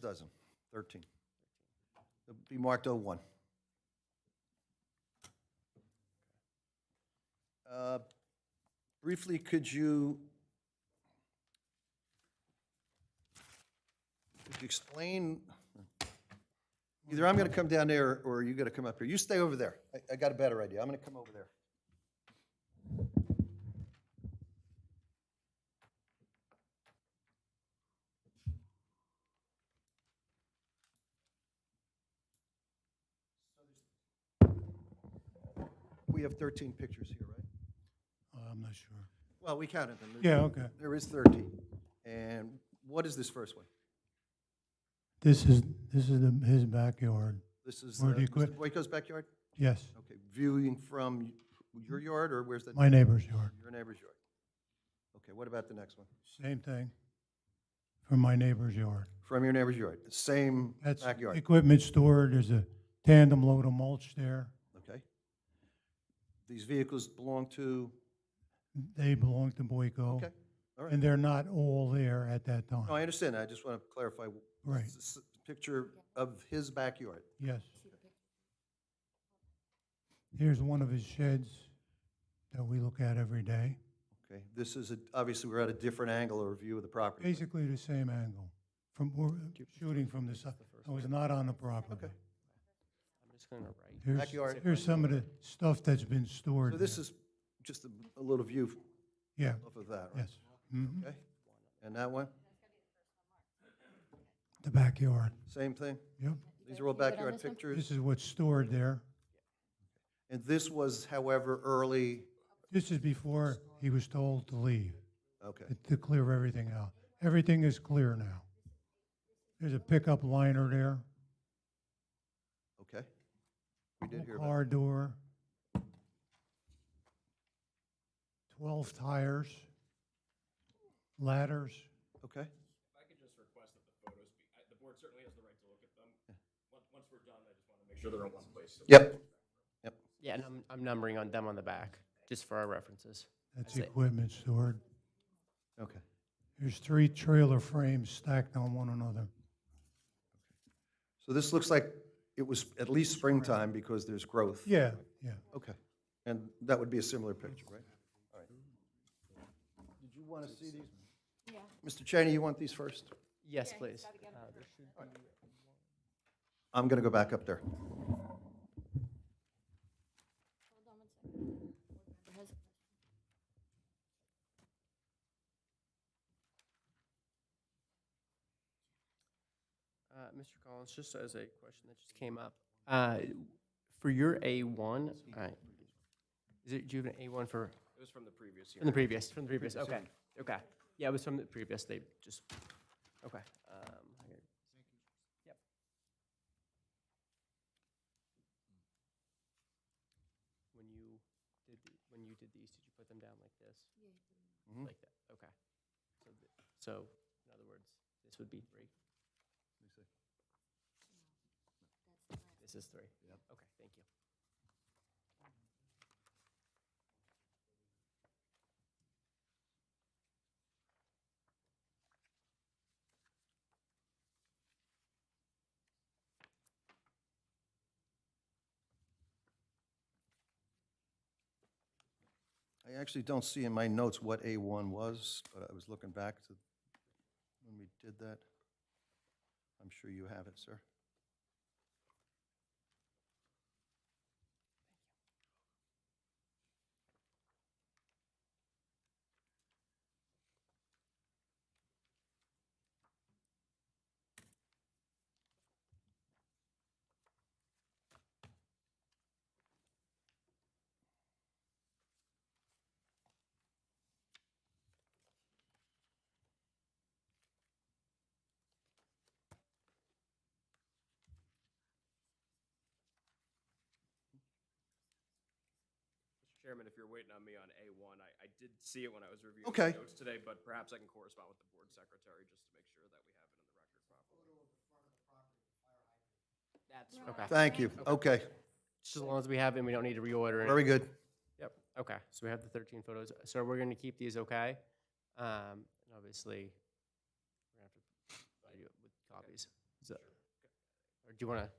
dozen, 13. It'll Be marked 01. Uh, Briefly, could you could you explain, either I'm going to come down there or you got to come up here. You stay over there. I- I got a better idea. I'm going to come over there. We have 13 pictures here, right? Oh, I'm not sure. Well, we counted them. Yeah, okay. There is 13. And what is this first one? This is, this is the- his backyard, This is uh, Where do you Mr. quit? Boyko's backyard? yes, Okay, viewing from your yard, or where's that? Mm-hmm. my neighbor's yard, Your neighbor's yard. Okay, what about the next one? same thing, from my neighbor's yard. From your neighbor's yard, the same That's backyard, equipment stored, there's a tandem load of mulch there, okay? These vehicles belong to, they belong to Boyko. okay, all right. And they're not all there at that No, I time, understand, I just want to clarify. Right. This is a Picture of his backyard, yes. Here's one of his sheds that we look at every day, okay? This is, a obviously, we're at a different angle or view of the property. basically the same angle, from, we're shooting from the side, I was not on the property. I'm just gonna write. Here's, Backyard. here's some of the stuff that's been stored. So this there. is just a a little view Yeah, off of that, right? yes. Mhm. Okay, and that one, The backyard, same thing? yep. These are all backyard pictures, This is what's stored there. and this was, however, early, This is before he was told to leave, okay, to- to clear everything out. Everything is clear now. There's a pickup liner there, okay. We did hear about, car door, 12 tires, ladders. okay, If I could just request that the photos be, I- the board certainly has the right to look at them. Once, once we're done, I just want to make sure they're in one place. so- yep. Yeah, and I'm, I'm numbering on them on the back, just for our references. That's That's it. equipment stored. Okay. There's three trailer frames stacked on one another. So this looks like it was at least springtime because there's growth. Yeah, yeah. Okay. And that would be a similar picture, right? All right. Did you want to see these? Mr. Cheney, you want these first? Yes, please. Uh, there should- I'm going to go back up there. uh, Mr. Collins, just as a question that just came up, uh, for your A1, uh, is it, do you have an A1 for, It was from the previous from hearing. the previous, from the previous, okay, okay. Yeah, it was from the previous, they just, okay. um, I gotta- Yep. When you did, the- when you did these, did you put them down like this? Mhm. Like that, okay. So, th- so, in other words, this would be three. This is three. Okay, thank you. I actually don't see in my notes what A1 was, but I was looking back to when we did that. I'm sure you have it, sir. Mr. Chairman, if you're waiting on me on A1, I, I did see it when I was reviewing Okay. the notes today, but perhaps I can correspond with the board secretary just to make sure that we have it in the record properly. That's. Okay, Thank you. Okay, just as long as we have it, and we don't need to reorder it. very good. Yep, okay, so we have the thirteen photos, so we're gonna keep these, okay? Um, and obviously, we're gonna have to provide you with copies. do you want to?